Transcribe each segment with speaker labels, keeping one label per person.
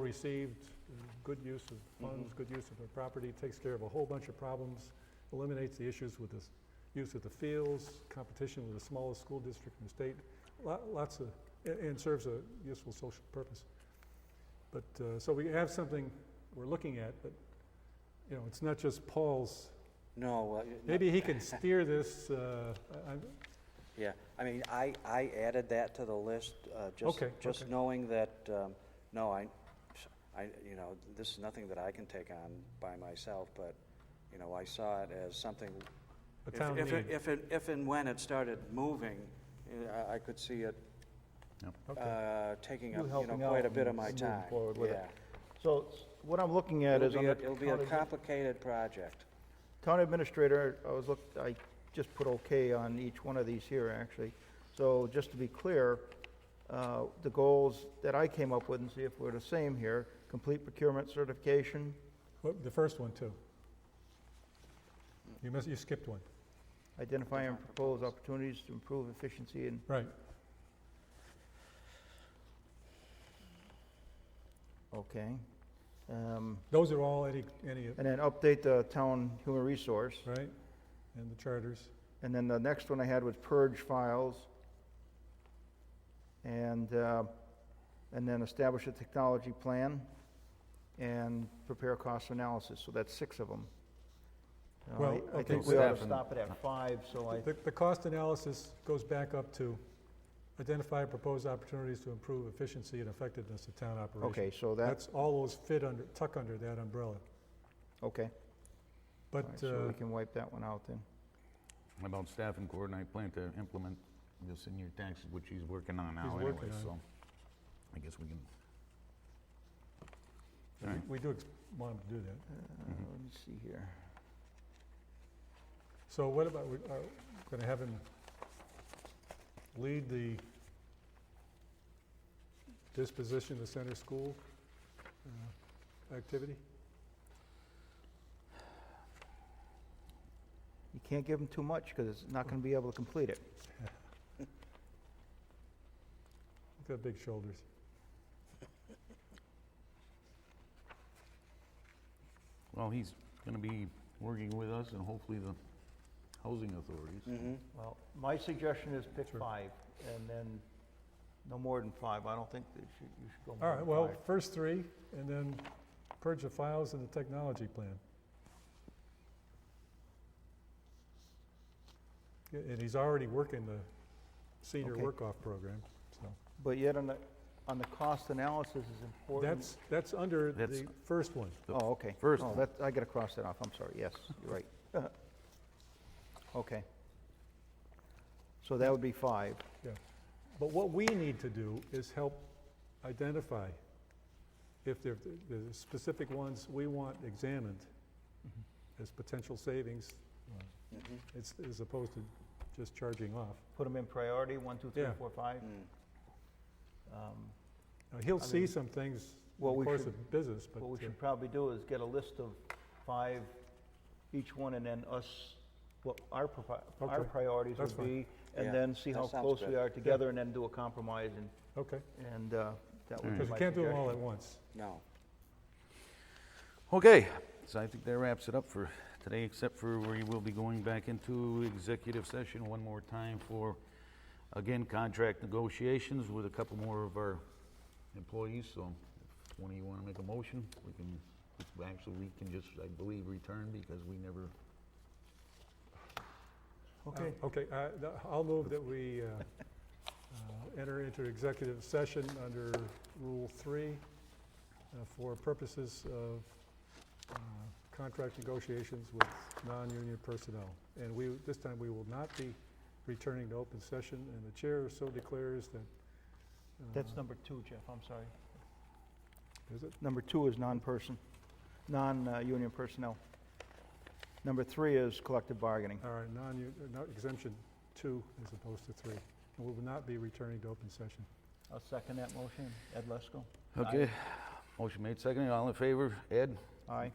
Speaker 1: received, good use of funds,
Speaker 2: Mm-hmm.
Speaker 1: good use of the property, takes care of a whole bunch of problems, eliminates the issues with the s- use of the fields, competition with the smallest school district in the state, lo- lots of, a- and serves a useful social purpose. But, uh, so we have something we're looking at, but, you know, it's not just Paul's,
Speaker 2: No, well, you- no,
Speaker 1: maybe he can steer this, uh, I- I'm-
Speaker 2: yeah, I mean, I, I added that to the list, uh, just,
Speaker 1: Okay,
Speaker 2: just
Speaker 1: okay.
Speaker 2: knowing that, um, no, I, I, you know, this is nothing that I can take on by myself, but, you know, I saw it as something.
Speaker 1: a
Speaker 2: if-
Speaker 1: town
Speaker 2: if it-
Speaker 1: need.
Speaker 2: If, it- if and when it started moving, eh, I, I could see it,
Speaker 1: Okay.
Speaker 2: uh, taking
Speaker 3: You
Speaker 2: up, you know,
Speaker 3: helping out
Speaker 2: quite a bit of
Speaker 3: and
Speaker 2: my
Speaker 3: moving
Speaker 2: time,
Speaker 3: forward with it.
Speaker 2: yeah.
Speaker 3: So s- what I'm looking at
Speaker 2: It'll
Speaker 3: is
Speaker 2: be
Speaker 3: on
Speaker 2: a-
Speaker 3: the
Speaker 2: It'll be a
Speaker 3: county admin-
Speaker 2: complicated project.
Speaker 3: town administrator, I was look, I just put okay on each one of these here, actually. So just to be clear, uh, the goals that I came up with and see if we're the same here, complete procurement certification,
Speaker 1: Well, The first one, too. You missed, you skipped one,
Speaker 3: identify and propose opportunities to improve efficiency and,
Speaker 1: right.
Speaker 3: okay. Um,
Speaker 1: Those are all any, any,
Speaker 3: And then update the town human resource.
Speaker 1: right? And the charters.
Speaker 3: And then the next one I had was purge files. And, uh, and then establish a technology plan and prepare a cost analysis. So that's six of them. Now, I-
Speaker 1: Well,
Speaker 3: I
Speaker 1: okay,
Speaker 3: think we ought to
Speaker 4: Seven.
Speaker 3: stop it at five, so I,
Speaker 1: The, the cost analysis goes back up to identify proposed opportunities to improve efficiency and effectiveness of town operations.
Speaker 3: okay, so that,
Speaker 1: That's, all those fit under, tuck under that umbrella.
Speaker 3: okay. All
Speaker 1: But,
Speaker 3: right,
Speaker 1: uh,
Speaker 3: So we can wipe that one out then.
Speaker 4: About staff and coordinate plan to implement this in your taxes, which he's working on
Speaker 1: He's
Speaker 4: now anyway,
Speaker 1: working on it.
Speaker 4: so I guess we can.
Speaker 1: we-
Speaker 4: Alright.
Speaker 1: we do ex- want 'em to do that.
Speaker 3: Uh,
Speaker 4: Mhm.
Speaker 3: Let me see here.
Speaker 1: So what about, we are going to have him lead the disposition of the center school uh, activity?
Speaker 3: You can't give them too much because it's not going to be able to complete it.
Speaker 1: He's got big shoulders.
Speaker 4: Well, he's gonna be working with us and hopefully the housing authorities.
Speaker 2: Mhm.
Speaker 3: Well, my suggestion is pick
Speaker 1: Sure.
Speaker 3: five and then no more than five. I don't think that you should, you should go more
Speaker 1: All
Speaker 3: than
Speaker 1: right,
Speaker 3: five.
Speaker 1: well, first three, and then purge the files and the technology plan. Yeah, And he's already working the senior
Speaker 3: Okay.
Speaker 1: work-off program, so.
Speaker 3: But yet on the, on the cost analysis is important.
Speaker 1: That's, that's under
Speaker 4: That's-
Speaker 1: the first one.
Speaker 4: the
Speaker 3: Oh, okay.
Speaker 4: first
Speaker 3: Oh,
Speaker 4: one.
Speaker 3: that, I gotta cross that off, I'm sorry, yes, you're right. Okay. So that would be five.
Speaker 1: But what we need to do is help identify if there, the specific ones we want examined as potential savings,
Speaker 2: Mhm.
Speaker 1: as, as opposed to just charging off.
Speaker 3: Put them in priority, one, two, three,
Speaker 1: Yeah.
Speaker 3: four, five.
Speaker 2: Mm.
Speaker 3: Um,
Speaker 1: Now, he'll
Speaker 3: I
Speaker 1: see
Speaker 3: mean,
Speaker 1: some things in
Speaker 3: what
Speaker 1: the
Speaker 3: we
Speaker 1: course
Speaker 3: should-
Speaker 1: of business, but
Speaker 3: What we
Speaker 1: uh,
Speaker 3: should probably do is get a list of five, each one, and then us, what our, provi- our
Speaker 1: Okay,
Speaker 3: priorities
Speaker 1: that's
Speaker 3: would
Speaker 1: fine.
Speaker 3: be, and
Speaker 2: Yeah,
Speaker 3: then see
Speaker 2: that
Speaker 3: how
Speaker 2: sounds
Speaker 3: close we
Speaker 2: good.
Speaker 3: are together, and then do a compromise, and,
Speaker 1: okay.
Speaker 3: and uh, that would be my
Speaker 1: Because you can't do them all at
Speaker 3: suggestion.
Speaker 1: once.
Speaker 2: No.
Speaker 4: Okay, so I think that wraps it up for today, except for we will be going back into executive session one more time for, again, contract negotiations with a couple more of our employees, so if one of you want to make a motion, we can, actually, we can just, I believe, return because we never,
Speaker 3: Okay.
Speaker 1: Uh, Okay, uh, th- I'll move that we uh, uh, enter into executive session under Rule 3 uh, for purposes of uh, contract negotiations with non-union personnel. And we, this time, we will not be returning to open session, and the chair so declares that. uh,
Speaker 3: That's number two, Jeff, I'm sorry.
Speaker 1: Is it?
Speaker 3: Number two is non-person, non-union personnel. Number three is collective bargaining.
Speaker 1: All right, non-union, exemption 2 as opposed to 3. And we will not be returning to open session.
Speaker 3: I'll second that motion. Ed Lesko?
Speaker 4: okay. Motion made, seconded, all in favor? Ed?
Speaker 3: Aye.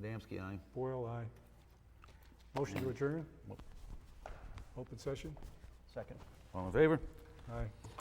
Speaker 4: Adamski, aye.
Speaker 1: Boyle, aye. Motion to adjourn? Open session?
Speaker 3: Second.
Speaker 4: All in favor?
Speaker 1: Aye.